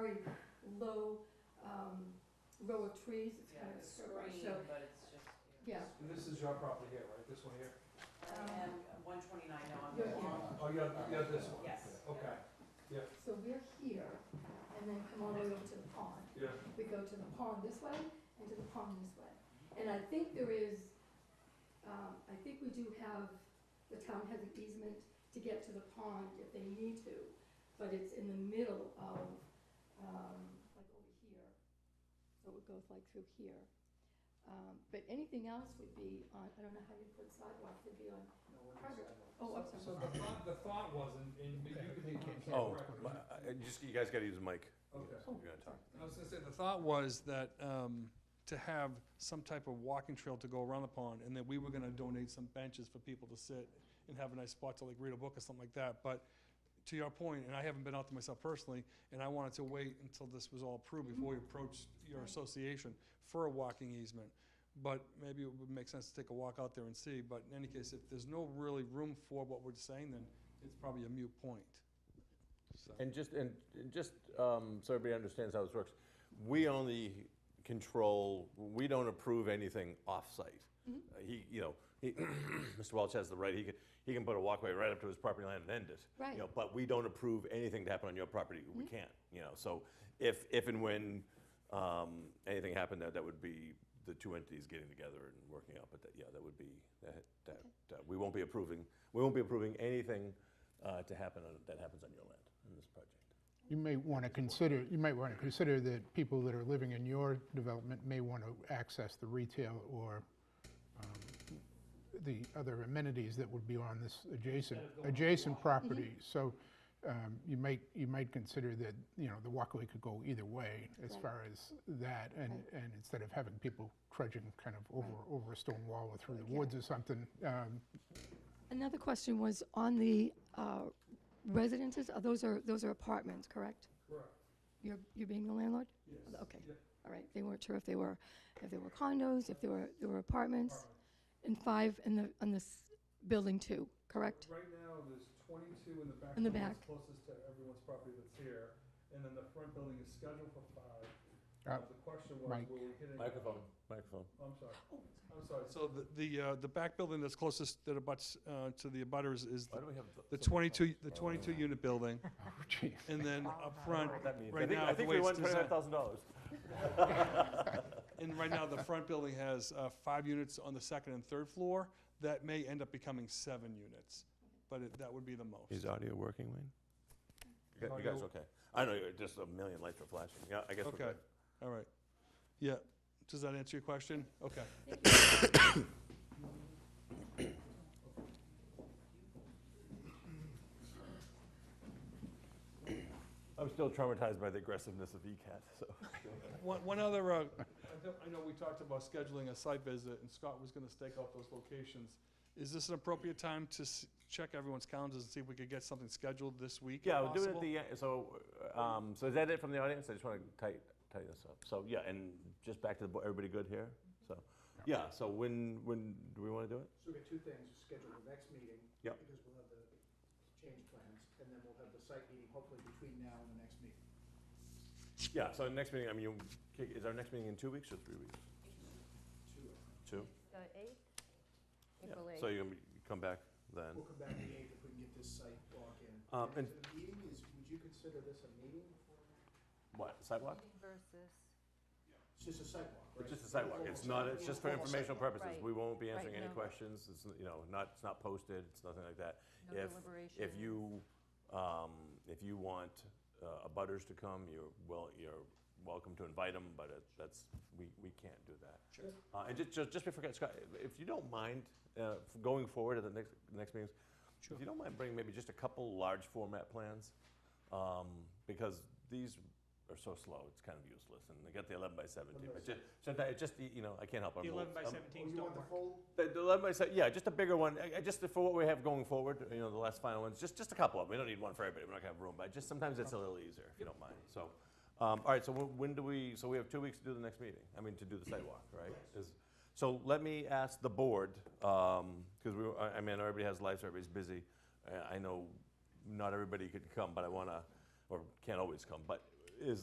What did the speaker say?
very low, um, row of trees, it's Yeah, kind of a it's screen, screened, so, but it's just. yeah. And this is your property here, right, this one here? And one twenty-nine, no, I'm Um, Yeah. wrong. Oh, you have, you have this one? Yes. Okay, So we're here, and then come all the way over to the pond. yeah, We go to the pond this way and to the pond this way. And I think there is, um, I think we do have, the town has an easement to get to the pond if they need to, but it's in the middle of, um, like over here. So it goes like through here. Um, But anything else would be on, I don't know how you put sidewalks, it'd be on, oh, I'm so sorry. the thought, the thought was, and, and you can correct me. Oh, my- I- just, you guys gotta use the mic. Okay. You're gonna talk. I was gonna say, the thought was that, um, to have some type of walking trail to go around the pond, and that we were gonna donate some benches for people to sit and have a nice spot to like read a book or something like that, but to your point, and I haven't been out there myself personally, and I wanted to wait until this was all approved before we approached your association for a walking easement. But maybe it would make sense to take a walk out there and see, but in any case, if there's no really room for what we're saying, then it's probably a mute point. So, And just, and and just, um, so everybody understands how this works, we only control, we don't approve anything off-site. Uh, He, you know, he, Mr. Welch has the right, he can, he can put a walkway right up to his property line and end it. you Right. know, But we don't approve anything to happen on your property, we can't, you know, so if, if and when, um, anything happened, that, that would be the two entities getting together and working out, but that, yeah, that would be, that, that, that- we won't be approving, we won't be approving anything, uh, to happen, on- that happens on your land, in this project. You may want to consider, you might want to consider that people that are living in your development may want to access the retail or um, the other amenities that would be on this adjacent, adjacent property. So um, you might, you might consider that, you know, the walkway could go either way as Right. far as that. And, Right. and instead of having people trudging kind of over, Right. over a stone wall or through the Yeah. woods or something, um, Another question was on the uh, residences, Are those are, those are apartments, correct? Correct, You're, you're being the landlord? yes. Okay. Yeah. All right, they weren't sure if they were, if they were condos, if they were, they were apartments, and five in the, on this building two, correct? Right now, there's twenty-two in the back. In the building that's back. Closest to everyone's property that's here, and then the front building is scheduled for five. Uh, Uh, The question was, Mike. were we hitting? Microphone, microphone. I'm sorry, Oh, I'm sorry. So the, the, uh, the back building that's closest that abuts, uh, to the abutters is Why do the we have? Oh, the twenty-two, the twenty-two unit building, oh geez. and then up front, That means, I Right think, now, the I uh, think way we it's won twenty-five designed- thousand dollars. and right now, the front building has, uh, five units on the second and third floor. That may end up becoming seven units, but it, that would be the most. audio working, Wayne? You guys- you guys okay? I know, you're just a million lights are flashing, yeah, I guess we're Okay, good. all right. Yeah, does that answer your question? Okay. I'm still traumatized by the aggressiveness of ECAT, so. One, one other, uh, I don't- I know we talked about scheduling a site visit, and Scott was gonna stake out those locations. Is this an appropriate time to s- check everyone's calendars and see if we could get something scheduled this week? if Yeah, we'll do it at possible? the, end. so, um, so is that it from the audience? I just want to tighten, tighten this up. So, yeah, and just back to the, bo- everybody good here? So, yeah, so when, when, do we want to do it? So we have got two things, schedule the next meeting. Yep. Because we'll have the change plans, and then we'll have the site meeting hopefully between now and the next meeting. Yeah, so next meeting, I mean, you- is our next meeting in two weeks or three weeks? Two. Two? The eighth? Yeah. April So eighth. you're going to come back then? We'll come back to the eighth if we can get this site walk in. Um, and- So The meeting is, would you consider this a meeting? What, sidewalk? Versus, It's just a site walk, right? It's just a sidewalk, it's not, it's just for informational purposes, we won't be answering Right, any no. questions, it's, you know, not, it's not posted, it's nothing like that. No If- deliberation. If you, um, if you want uh, abutters to come, you're well, you're welcome to invite them, but it- that's, we, we can't do that. Sure. Uh, and just, just before, Scott, if you don't mind, uh, f- going forward at the next, next meetings, if you don't mind bringing maybe just a couple large format plans, um, because these are so slow, it's kind of useless, and they got the eleven by seventeen, but just, sometimes, it just, you know, I can't help it. I'm a The little- 11 by I'm- 17s You don't want the work. full, the, the eleven by se- yeah, just a bigger one. I, I just for what we have going forward, you know, the last final ones, just just a couple of them. We don't need one for everybody. We're not gonna have room, but just sometimes it's a little easier if you don't mind. So, um, all right. So when, when do we? So we have two weeks to do the next meeting. I mean, to do the sidewalk, right? Is- so let me ask the board because we. were- I, I mean, everybody has lives. Everybody's busy. I, I know not everybody could come, but I wanna or can't always come. But